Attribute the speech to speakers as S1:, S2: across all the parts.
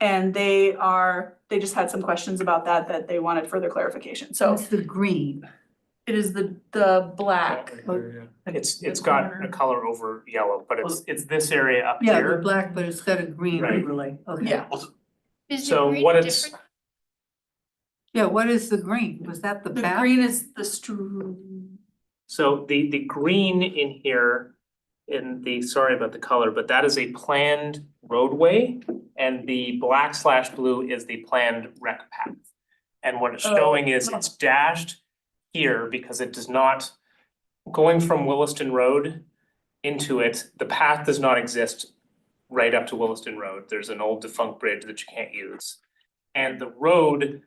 S1: And they are, they just had some questions about that, that they wanted further clarification. So
S2: It's the green.
S1: it is the, the black.
S3: It's,
S2: The
S3: it's got
S2: corner.
S3: a color over yellow, but it's, it's this area up
S2: Yeah, the
S3: here.
S2: black, but it's got a green
S3: Right.
S2: overlay, okay.
S1: Yeah.
S4: Is the
S3: So
S4: green
S3: what it's-
S4: different?
S2: Yeah, what is the green? Was that the
S1: The
S2: back?
S1: green is the stru.
S3: So the, the green in here, in the, sorry about the color, but that is a planned roadway. And the black slash blue is the planned rec path. And what it's
S1: Oh.
S3: showing is it's dashed here because it does not, going from Williston Road into it, the path does not exist right up to Williston Road. There's an old defunct bridge that you can't use. And the road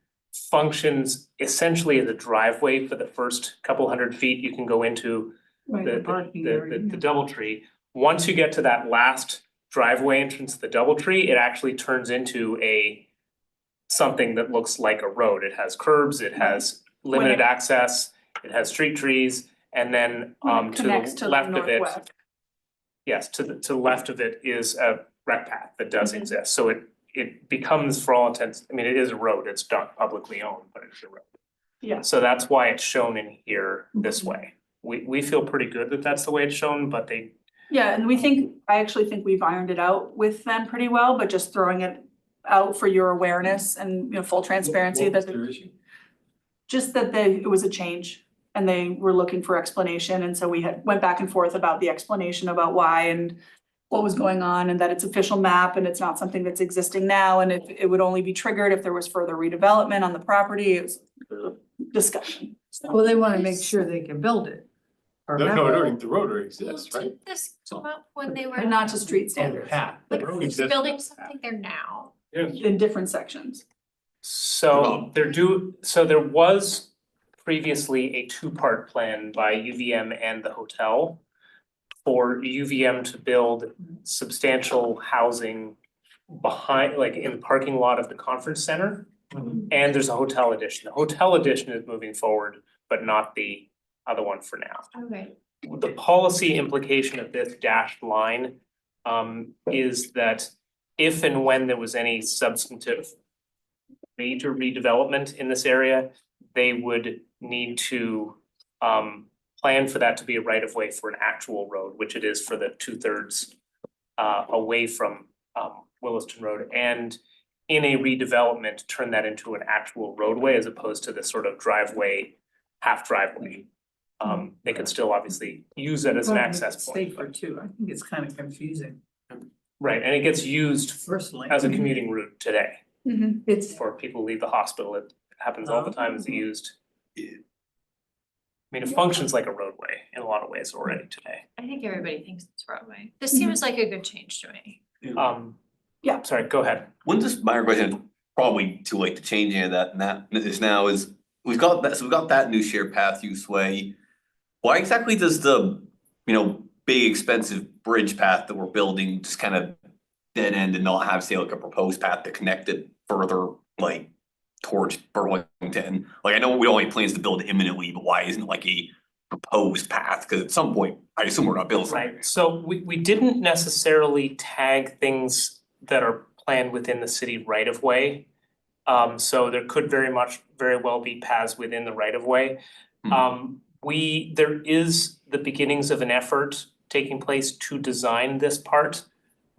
S3: functions essentially as a driveway for the first couple hundred feet you can go into
S2: Right,
S3: the the
S2: parking area,
S3: the the
S2: yeah.
S3: Doubletree. Once you get to that last driveway entrance to the Doubletree, it actually turns into a something that looks like a road. It has curbs, it has
S1: When it-
S3: limited access, it has street trees, and then um to
S1: Connects to
S3: the
S1: the
S3: left of it,
S1: northwest.
S3: yes, to the to the left of it is a rec path that does
S1: Mhm.
S3: exist. So it it becomes for all intents, I mean, it is a road. It's not publicly owned, but it's a road.
S1: Yeah.
S3: So that's why it's shown in here this way. We, we feel pretty good that that's the way it's shown, but they,
S1: Yeah, and we think, I actually think we've ironed it out with them pretty well, but just throwing it out for your awareness and, you know, full transparency that, the- just that they, it was a change. And they were looking for explanation, and so we had, went back and forth about the explanation about why and what was going on, and that it's official map, and it's not something that's existing now, and it, it would only be triggered if there was further redevelopment on the property, it was uh, discussion.
S2: Well, they wanna make sure they can build it. or
S5: No,
S2: have
S5: no,
S2: it.
S5: I don't think the road already
S4: Well,
S5: exists, right?
S4: Didn't this
S5: So-
S4: come up when they were
S1: And not to street standards,
S5: path,
S4: like building something there now?
S1: in different sections.
S3: so
S5: Well-
S3: there do, so there was previously a two-part plan by UVM and the hotel for UVM to build substantial housing behind, like in the parking lot of the conference center.
S2: Mm-hmm.
S5: Mhm.
S3: And there's a hotel addition. The hotel addition is moving forward, but not the other one for now.
S4: Okay.
S3: the policy implication of this dashed line um, is that if and when there was any substantive major redevelopment in this area, they would need to um, plan for that to be a right of way for an actual road, which it is for the two thirds uh, away from um, Williston Road and in a redevelopment, turn that into an actual roadway as opposed to the sort of driveway, half driveway. Um, they could still obviously use it as an
S2: Wanna make
S3: access
S2: it
S3: point,
S2: Safer too, I think it's kinda confusing
S3: right, and it gets used
S2: personally.
S3: as a commuting route today
S2: It's,
S3: for people who leave the hospital, it happens all the time, it's
S2: Oh.
S3: used. I mean, it functions like a roadway in a lot of ways already today,
S4: I think everybody thinks it's Broadway. This
S2: Mm-hmm.
S4: seems like a good change to me.
S3: um.
S1: Yeah.
S3: Sorry, go ahead,
S6: Wouldn't this, my question, probably too late to change any of that now, is now is, we've got that, so we've got that new shared path use way. Why exactly does the, you know, big expensive bridge path that we're building just kind of dead end and not have, say, like a proposed path to connect it further, like towards Burlington? Like, I know we only plans to build imminently, but why isn't it like a proposed path? Cause at some point, I assume we're not building. something.
S3: right, so we we didn't necessarily tag things that are planned within the city right of way. Um, so there could very much, very well be paths within the right of way.
S6: Mhm.
S3: Um, we, there is the beginnings of an effort taking place to design this part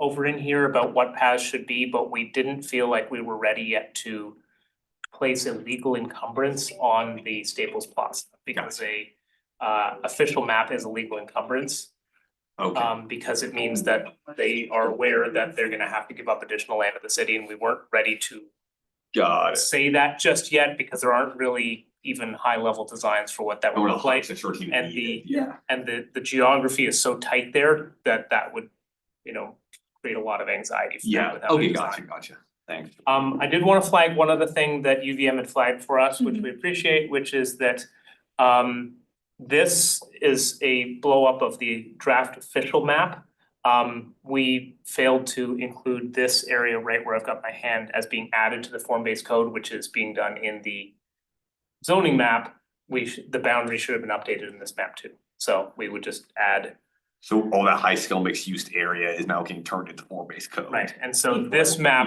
S3: over in here about what paths should be, but we didn't feel like we were ready yet to place a legal encumbrance on the Staples Plaza because a uh official map is a legal encumbrance.
S6: Okay.
S3: Um, because it means that they are aware that they're gonna have to give up additional land to the city and we weren't ready to
S6: Got it.
S3: say that just yet because there aren't really even high level designs for what that
S6: I
S3: would
S6: wanna
S3: look Um, like.
S6: sure it's even
S3: and
S6: needed,
S3: the-
S6: yeah.
S3: And the, the geography is so tight there that that would, you know, create a lot of anxiety for them
S6: Yeah,
S3: without
S6: okay,
S3: a
S6: gotcha,
S3: design.
S6: gotcha, thanks.
S3: Um, I did wanna flag one other thing that UVM had flagged for us, which we appreciate, which is that um this is a blow up of the draft official map. Um, we failed to include this area right where I've got my hand as being added to the form-based code, which is being done in the zoning map. We should, the boundary should have been updated in this map too, so we would just add
S6: So all that high scale mixed use area is now getting turned into form based code.
S3: Right, and so this map